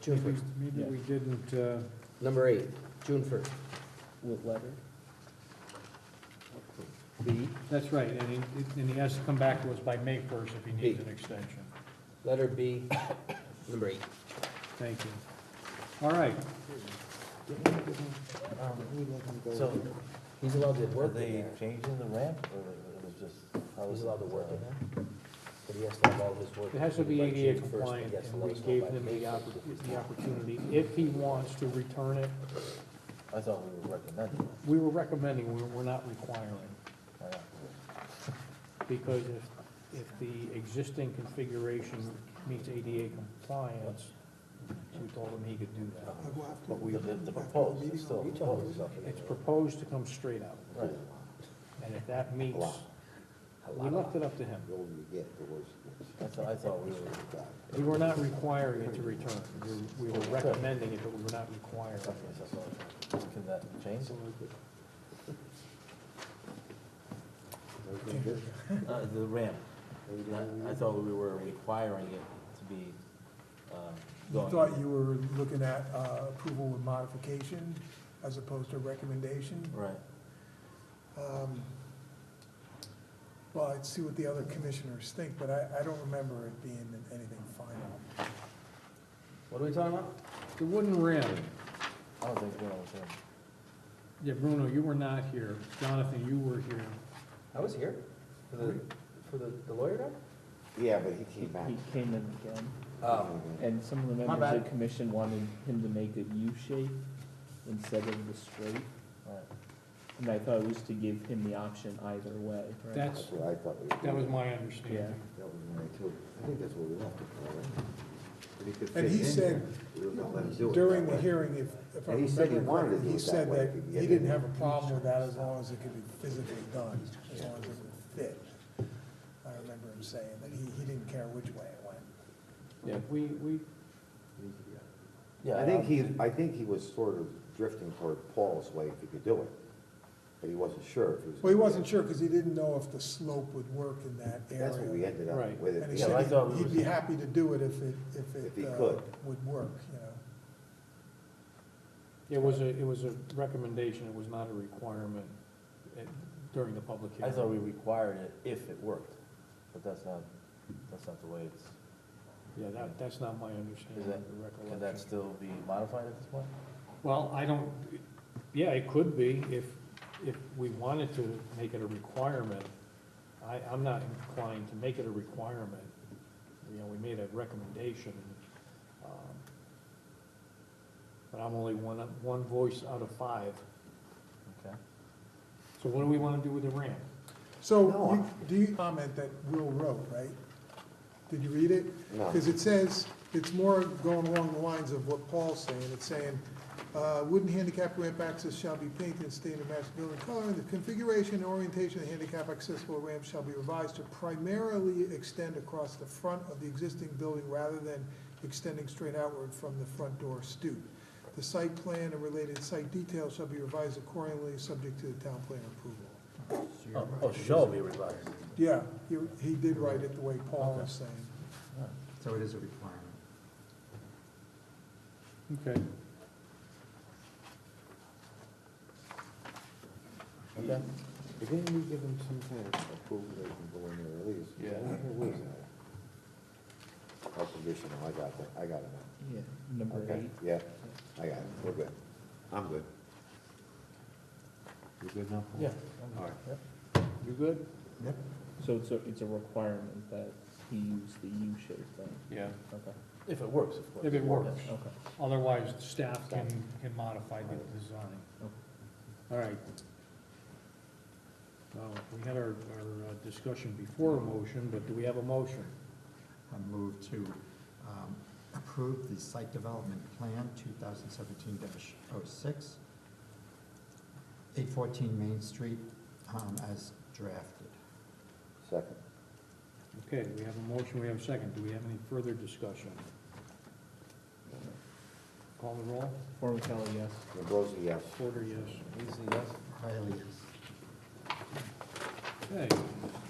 June Maybe- first. Maybe Yeah. we didn't, uh, Number eight, June first. With letter? B, that's right, and he, and he has to come back to us by May first if he needs an extension. letter B, number eight. Thank you. All right, So he's allowed to Were work in they there, changing the ramp, or it was just? how he's was allowed to work in uh, there, but he has to have all his work. it has to be by June ADA 1st, compliant, he has to and let we us know gave by him the May 1st if oppor- he's the not. opportunity, if he wants to return it, I thought we were recommending. it. we were recommending, we're, we're not requiring. I don't- Because if, if the existing configuration meets ADA compliance, we told him he could do that. But we, But the- the proposed, it's still You tell him. proposed. up in the it's air. proposed to come straight out, Right. and if that meets, A we lot of- left it up to him. I thought, I thought we were, We were not requiring it to return, We- we were recommending it, but we were not requiring okay, it. so I thought- can that change? Uh, the ramp, I, I thought we were requiring it to be, um, You going. thought you were looking at uh, approval with modification as opposed to recommendation? Right, Um, Well, I'd see what the other commissioners think, but I, I don't remember it being anything final. What are we talking about? The wooden rim, I don't think Bruno was in. yeah, Bruno, you were not here, Jonathan, you were here. I was here for the, for the the lawyer guy? Yeah, but he came back. He came in again, Oh, and some of the My members of bad. the commission wanted him to make a U shape instead of the straight, Right. and I thought it was to give him the option either way. right? That's, That's what I thought we were. that was doing. my understanding. That was mine too. I think that's what we left it for, right? But he could And he fit in said there. We were gonna let him do it During that the way. hearing, if, if I And he said he remember wanted to correctly, do he it that said way, that if he he get didn't in. have a problem with that as long as it could be physically done, as long as it would fit. I remember him saying that he, he didn't care which way it went. Yeah, we, we, Yeah, I think he, obviously- I think he was sort of drifting toward Paul's way if he could do it, but he wasn't sure if he was. Well, he gonna do wasn't it. sure because he didn't know if the slope would work in that area. That's what we ended up Right. with. at And he the end. I said thought we he'd- he'd was- be happy to do it if it, if it. If he uh, could. Would work, you know. it was a, it was a recommendation, it was not a requirement at- during the public I hearing. thought we required it if it worked, but that's not, that's not the way it's, Yeah, that, that's not my understanding Is that- of the can that recollection. still be modified at this point? Well, I don't, yeah, it could be if, if we wanted to make it a requirement. I, I'm not inclined to make it a requirement. You know, we made a recommendation. um, But I'm only one, one voice out of five. Okay. So what do we want to do with the ramp? So, No, you- do you comment that Will wrote, right? Did you read it? No. Because it says, it's more going along the lines of what Paul's saying, it's saying, uh, wooden handicap ramp access shall be painted in state of match building color, the configuration and orientation of the handicap accessible ramp shall be revised to primarily extend across the front of the existing building rather than extending straight outward from the front door stoop. The site plan and related site details shall be revised accordingly, subject to the town plan approval. Oh, oh, shall be revised. Yeah, he, he did write it the way Paul was saying. So it is a requirement. Okay. Okay. But Didn't we give him some kind of approval they can go in there at least? Yeah. Where was that? Oh, conditional, I got that, I got it now. Yeah, number Okay, eight. yeah, I got it, we're good. I'm good. You good now? Paul? Yeah. All right. You good? So it's a, it's a requirement that he use the U shape thing, Yeah. okay, If it works, of course. If it works. okay. Otherwise, staff can, can modify the design. Okay. All right. Well, we had our, our uh, discussion before a motion, but do we have a motion? I move to um, approve the site development plan 2017-06, 814 Main Street um, as drafted. Second. Okay, we have a motion, we have a second. Do we have any further discussion? Call the roll? Formicelli, yes. Ambrosi, yes. Porter, yes. Easy, yes? Riley, yes. Okay.